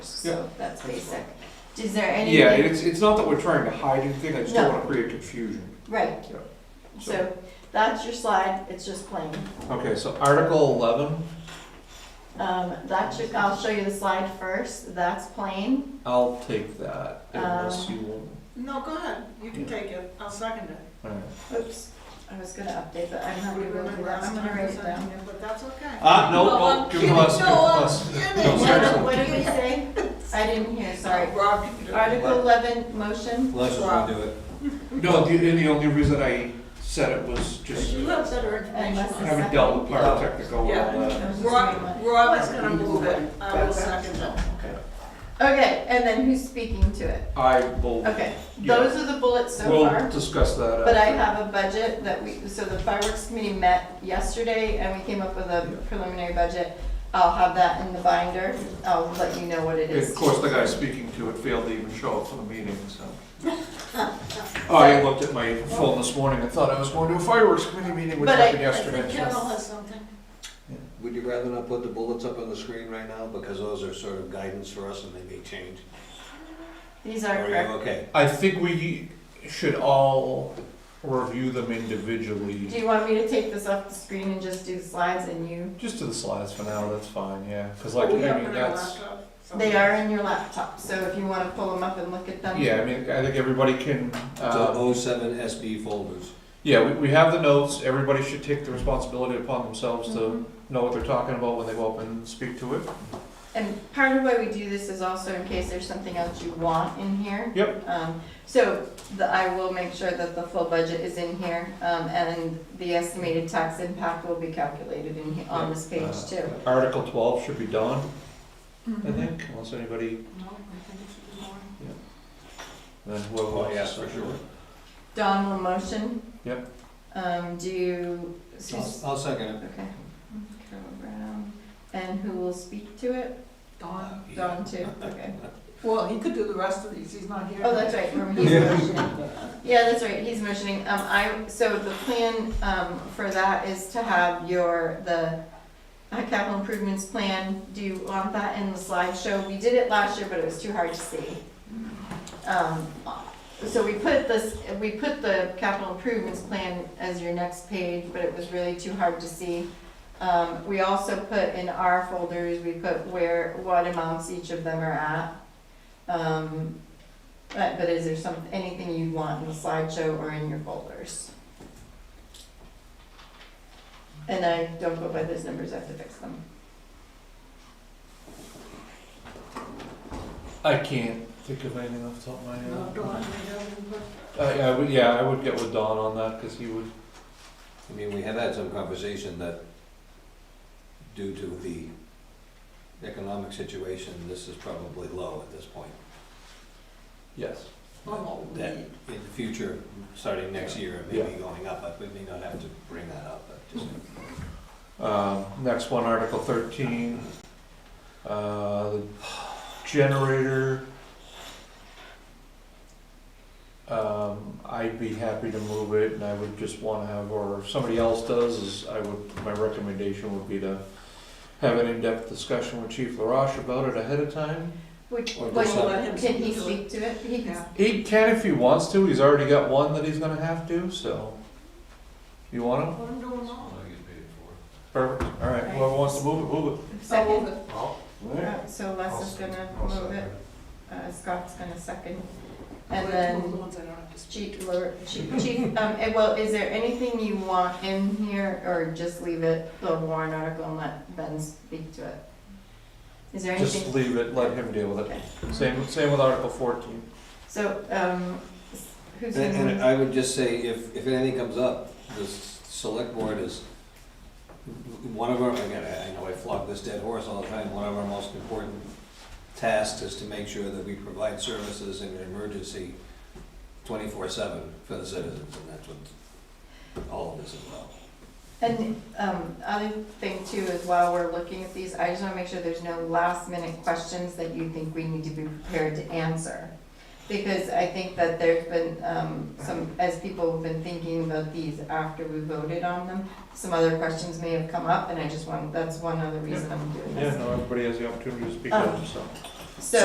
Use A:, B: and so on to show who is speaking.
A: so that's
B: that's
A: basic. Is there anything?
B: Yeah, and it's, it's not that we're trying to hide anything, I just don't
A: No.
B: wanna create confusion.
A: Right.
B: Yeah.
A: So that's your slide, it's just plain.
B: Okay, so Article eleven,
A: Um, that should, I'll show you the slide first, that's plain.
B: I'll take that unless
A: Um,
B: you want.
C: No, go ahead, you can take it, I'll second it.
B: Alright.
A: Oops, I was gonna update, but I'm not
C: We
A: gonna do
C: remember
A: that, I'm
C: last
A: gonna
C: time
A: write
C: we
A: it down.
C: seconded, but that's okay.
B: Ah, no,
C: No,
B: no,
C: I'm
B: give it
C: kidding,
B: to us,
C: no,
B: give it to
C: I'm
B: us.
C: kidding.
B: No,
C: No,
B: seriously.
A: What did we say? I didn't hear, sorry.
C: Rob, you can do it.
A: Article eleven, motion,
D: Let's
C: Wow.
D: do it.
B: No, the, and the only reason I said it was just,
C: You have better information.
A: Unless
B: I
C: on
A: it's-
C: it.
B: haven't dealt with pyrotechnical uh, and all that.
C: Rob, Rob is gonna move it, I will second it.
A: okay, and then who's speaking to it?
B: I will,
A: Okay, those are the bullets so
B: we'll
A: far,
B: discuss that
A: but I
B: after.
A: have a budget that we, so the fireworks committee met yesterday and we came up with a preliminary budget. I'll have that in the binder, I'll let you know what it
B: And
A: is.
B: Of course, the guy speaking to it failed to even show up for the meeting, so. I looked at my phone this morning and thought I was going to a fireworks committee meeting, which
A: But I-
B: happened
C: I think
B: yesterday.
C: Carol has something.
D: Would you rather not put the bullets up on the screen right now, because those are sort of guidance for us and they may change?
A: These
D: Are
A: are
D: you
A: correct.
D: okay?
B: I think we should all review them individually,
A: Do you want me to take this off the screen and just do the slides and you,
B: just to the slides for now, that's fine, yeah, because like, I
C: Oh, We have it
B: mean,
C: on
B: that's,
C: our laptop, so-
A: they are in your laptop, so if you wanna pull them up and look at them.
B: yeah, I mean, I think everybody can,
D: The
B: uh,
D: O oh seven SB folders.
B: yeah, we, we have the notes, everybody should take the responsibility upon themselves to
C: Mm-hmm.
A: Mhm.
B: know what they're talking about when they go up and speak to it.
A: And part of why we do this is also in case there's something else you want in here.
B: Yep.
A: Um, so the, I will make sure that the full budget is in here, um, and the estimated tax impact will be calculated in, he- on this page
B: Uh,
A: too.
B: Article twelve should be done, I think, unless anybody,
C: Mm-hmm. No, I think it should be more.
B: then whoever.
D: Oh,
B: wants to
D: yeah, for
B: start.
D: sure.
A: Don will motion.
B: Yep.
A: Um, do you,
D: I'll,
A: Sus-
D: I'll second it.
A: okay. Carol Brown, and who will speak to it?
C: Dawn.
A: Don too, okay.
C: Well, he could do the rest of these, he's not here.
A: Oh, that's right, remember he's motioning. Yeah, that's right, he's motioning. Um, I, so the plan, um, for that is to have your, the uh, capital improvements plan, do you want that in the slideshow? We did it last year, but it was too hard to see. Um, so we put this, we put the capital improvements plan as your next page, but it was really too hard to see. Um, we also put in our folders, we put where, what amounts each of them are at. Um, but, but is there some, anything you want in the slideshow or in your folders? And I don't go by those numbers, I have to fix them.
B: I can't think of anything off the top of my
C: No,
B: head.
C: Dawn, we have input.
B: I, I would, yeah, I would get with Don on that, cause he would,
D: I mean, we had had some conversation that due to the economic situation, this is probably low at this point.
B: yes.
C: Oh, no,
D: That in the future, starting next year, it may be going up, but we may not have to bring that up, but just.
B: Um, next one, Article thirteen, uh, the generator. Um, I'd be happy to move it, and I would just wanna have, or if somebody else does, is I would, my recommendation would be to have an in-depth discussion with Chief LaRoche about it ahead of time.
A: Which,
D: Or
A: what,
D: just
C: let him
A: can he
C: do it.
A: speak to it? He can
C: Yeah.
B: He can if he wants to, he's already got one that he's gonna have to, so. You want him?
C: What I'm doing wrong.
B: Perfect, alright, whoever wants to move it, move it.
C: Oh,
A: second.
B: Alright.
A: Uh, So Les is gonna move it, uh, Scott's gonna second. And then
C: The ones I don't have to speak.
A: Chief, Lur- Chief, Chief, um, eh, well, is there anything you want in here, or just leave it, the warrant article, and let Ben speak to it? Is there
B: Just
A: anything?
B: leave it, let him deal with
A: Okay.
B: it. Same, same with Article fourteen.
A: So, um, s- who's
D: And
A: gonna?
D: and I would just say, if, if anything comes up, the s- select board is, one of our, again, I I know I flog this dead horse all the time, one of our most important tasks is to make sure that we provide services in an emergency twenty-four seven for the citizens, and that's what all of this is about.
A: And, um, other thing too is while we're looking at these, I just wanna make sure there's no last minute questions that you think we need to be prepared to answer. Because I think that there's been, um, some, as people have been thinking about these after we voted on them, some other questions may have come up, and I just want, that's one other reason I'm doing
B: Yeah,
A: this.
B: no, everybody has the opportunity to speak
A: up,
B: up, so.